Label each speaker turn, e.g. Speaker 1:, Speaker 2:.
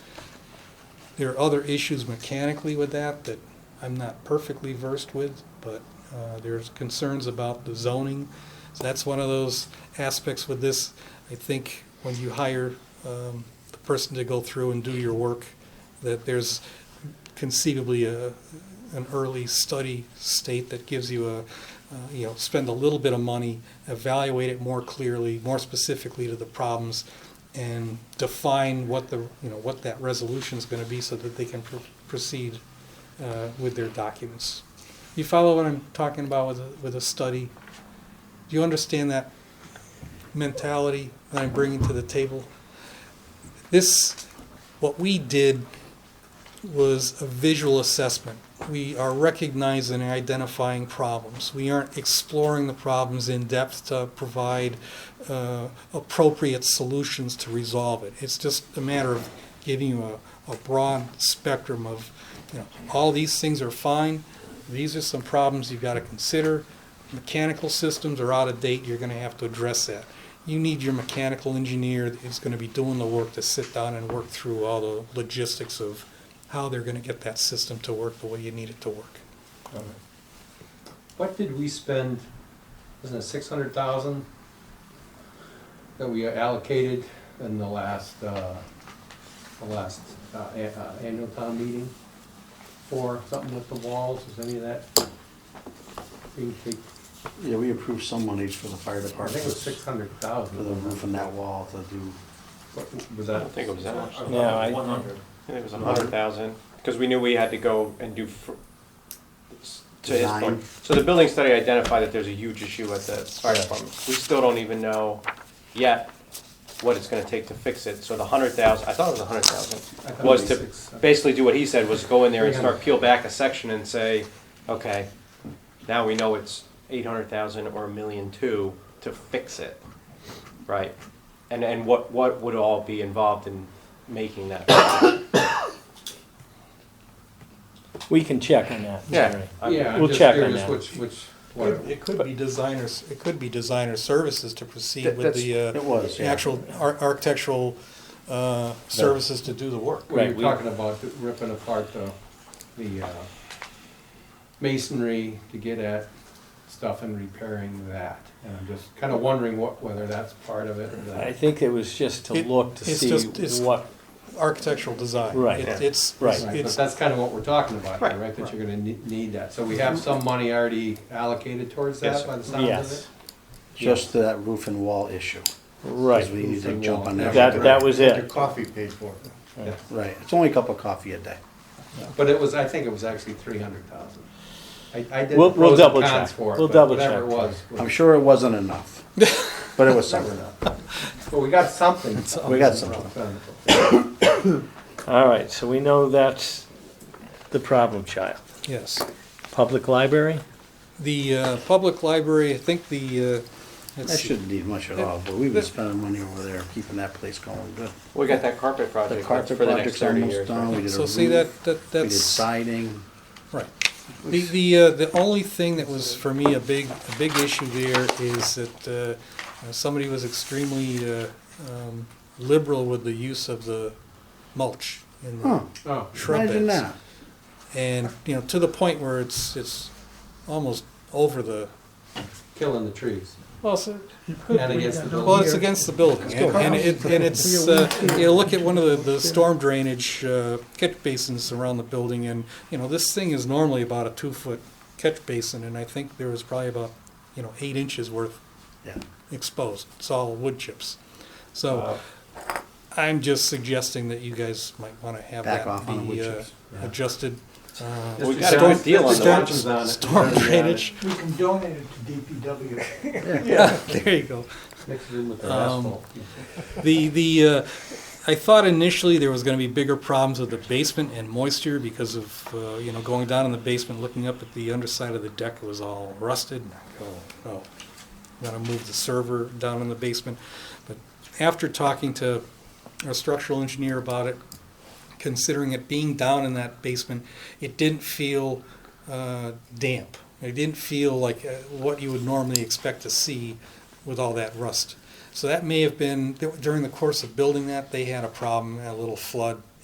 Speaker 1: There are other issues mechanically with that that I'm not perfectly versed with, but uh, there's concerns about the zoning. So that's one of those aspects with this. I think when you hire um, the person to go through and do your work, that there's conceivably a, an early study state that gives you a, uh, you know, spend a little bit of money, evaluate it more clearly, more specifically to the problems, and define what the, you know, what that resolution is going to be so that they can pr- proceed uh, with their documents. You follow what I'm talking about with, a- with a study? Do you understand that mentality that I'm bringing to the table? This, what we did was a visual assessment. We are recognizing and identifying problems. We aren't exploring the problems in depth to provide uh, appropriate solutions to resolve it. It's just a matter of giving you a, a broad spectrum of, you know, all these things are fine. These are some problems you've got to consider. Mechanical systems are out of date. You're going to have to address that. You need your mechanical engineer that's going to be doing the work to sit down and work through all the logistics of how they're going to get that system to work the way you need it to work.
Speaker 2: What did we spend, wasn't it six hundred thousand that we allocated in the last, uh, the last, uh, a- uh, annual town meeting? For something with the walls, is any of that? being take-
Speaker 3: Yeah, we approved some monies for the fire
Speaker 2: I
Speaker 3: department,
Speaker 2: think it was six
Speaker 3: for
Speaker 2: hundred thousand.
Speaker 3: the roof and that wall to do,
Speaker 2: Was
Speaker 4: I
Speaker 2: that?
Speaker 4: don't think it was that much. I
Speaker 5: No, I-
Speaker 6: One hundred.
Speaker 4: think it was a hundred thousand, because we knew we had to go and do, fr- to his
Speaker 3: Design.
Speaker 4: point. So the building study identified that there's a huge issue at the fire department. We still don't even know yet what it's gonna take to fix it, so the hundred thousand, I thought it was a hundred thousand,
Speaker 2: I thought it
Speaker 4: was to
Speaker 2: six-
Speaker 4: basically do what he said, was go in there and start peel back a section and say, okay, now we know it's eight hundred thousand or a million two to fix it, right? And, and what, what would all be involved in making that?
Speaker 5: We can check on that.
Speaker 4: Yeah.
Speaker 5: Jerry.
Speaker 4: I'm-
Speaker 2: Yeah, I'm
Speaker 5: We'll
Speaker 2: just
Speaker 5: check on
Speaker 2: curious
Speaker 5: that.
Speaker 2: which, which,
Speaker 1: It
Speaker 2: whatever.
Speaker 1: it could be designers, it could be designer services to proceed
Speaker 4: That-
Speaker 1: with the
Speaker 3: it
Speaker 1: uh,
Speaker 3: was, yeah.
Speaker 1: actual ar- architectural uh, services to do the work.
Speaker 2: We
Speaker 5: Right,
Speaker 2: were
Speaker 5: we-
Speaker 2: talking about ripping apart the, the uh, masonry to get at stuff and repairing that. And I'm just kind of wondering what, whether that's part of it or
Speaker 5: I
Speaker 2: that.
Speaker 5: think it was just to
Speaker 1: It-
Speaker 5: look to
Speaker 1: it's just- it's-
Speaker 5: see what,
Speaker 1: Architectural design.
Speaker 5: Right.
Speaker 1: It- It's,
Speaker 5: Right.
Speaker 2: Right, But
Speaker 1: it's,
Speaker 2: that's kind of what we're talking about, here,
Speaker 4: Right,
Speaker 2: right? That you're gonna ne- need that. So we have
Speaker 6: Mm-hmm.
Speaker 2: some money already allocated towards
Speaker 4: Yes,
Speaker 2: that
Speaker 4: sir.
Speaker 2: by the sound of
Speaker 5: yes,
Speaker 2: it?
Speaker 3: just that roof and wall issue. 'cause we
Speaker 5: right.
Speaker 3: need to jump on that.
Speaker 5: That, that was
Speaker 6: Your
Speaker 5: it.
Speaker 6: coffee paid for.
Speaker 2: Yeah.
Speaker 3: Right, it's only a cup of coffee a day.
Speaker 2: But it was, I think it was actually three hundred thousand. I, I did
Speaker 5: We'll-
Speaker 2: the
Speaker 5: we'll
Speaker 2: pros and
Speaker 5: double
Speaker 2: cons
Speaker 5: check.
Speaker 2: for it,
Speaker 5: We'll
Speaker 2: but
Speaker 5: double
Speaker 2: whatever it
Speaker 5: check.
Speaker 2: was.
Speaker 3: I'm sure it wasn't enough, but it was
Speaker 2: Never
Speaker 3: something.
Speaker 2: know. But we got something.
Speaker 3: We got something.
Speaker 5: All right, so we know that's the problem child.
Speaker 1: yes.
Speaker 5: Public library?
Speaker 1: The uh, public library, I think the, uh, let's
Speaker 3: That
Speaker 1: see.
Speaker 3: shouldn't need much at all, but we've been spending money over there, keeping that place going good.
Speaker 4: We got that carpet project
Speaker 3: The
Speaker 4: that's
Speaker 3: carpet
Speaker 4: for the next
Speaker 3: project's
Speaker 4: thirty
Speaker 3: almost
Speaker 4: years.
Speaker 3: done, we did a
Speaker 1: so see that,
Speaker 3: roof,
Speaker 1: that,
Speaker 3: we did
Speaker 1: that's,
Speaker 3: siding.
Speaker 1: right. The, the, uh, the only thing that was for me a big, a big issue there is that uh, uh, somebody was extremely uh, um, liberal with the use of the mulch in
Speaker 3: Huh,
Speaker 1: the
Speaker 2: Oh,
Speaker 1: shrub
Speaker 3: imagine
Speaker 1: beds.
Speaker 3: that.
Speaker 1: And, you know, to the point where it's, it's almost over the,
Speaker 2: killing the trees.
Speaker 1: well, so
Speaker 2: And against the
Speaker 1: Well, it's
Speaker 2: building.
Speaker 1: against the building, and and it, and it's, uh, you know, look at one of the, the storm drainage, uh, catch basins around the building, and, you know, this thing is normally about a two-foot catch basin, and I think there was probably about, you know, eight inches worth
Speaker 3: Yeah,
Speaker 1: exposed, it's all wood chips. So, I'm just suggesting that you guys might wanna have
Speaker 3: Back
Speaker 1: that
Speaker 3: off on the wood
Speaker 1: be, uh,
Speaker 3: chips.
Speaker 2: Yeah.
Speaker 1: adjusted, uh,
Speaker 4: We
Speaker 2: Mr.
Speaker 4: got a
Speaker 2: Johnson-
Speaker 4: good deal on
Speaker 2: Mr.
Speaker 4: the
Speaker 2: Johnson's
Speaker 4: watches.
Speaker 2: on it.
Speaker 1: storm
Speaker 2: He's already on it.
Speaker 1: drainage,
Speaker 6: We can donate it to DPW.
Speaker 1: there you go.
Speaker 2: Mixed in with the
Speaker 1: Um,
Speaker 2: asphalt.
Speaker 1: The, the, uh, I thought initially there was gonna be bigger problems with the basement and moisture because of, uh, you know, going down in the basement, looking up at the underside of the deck, it was all rusted. And I go, oh, gotta move the server down in the basement. But after talking to our structural engineer about it, considering it being down in that basement, it didn't feel uh, damp. It didn't feel like uh, what you would normally expect to see with all that rust. So that may have been, during the course of building that, they had a problem, a little flood,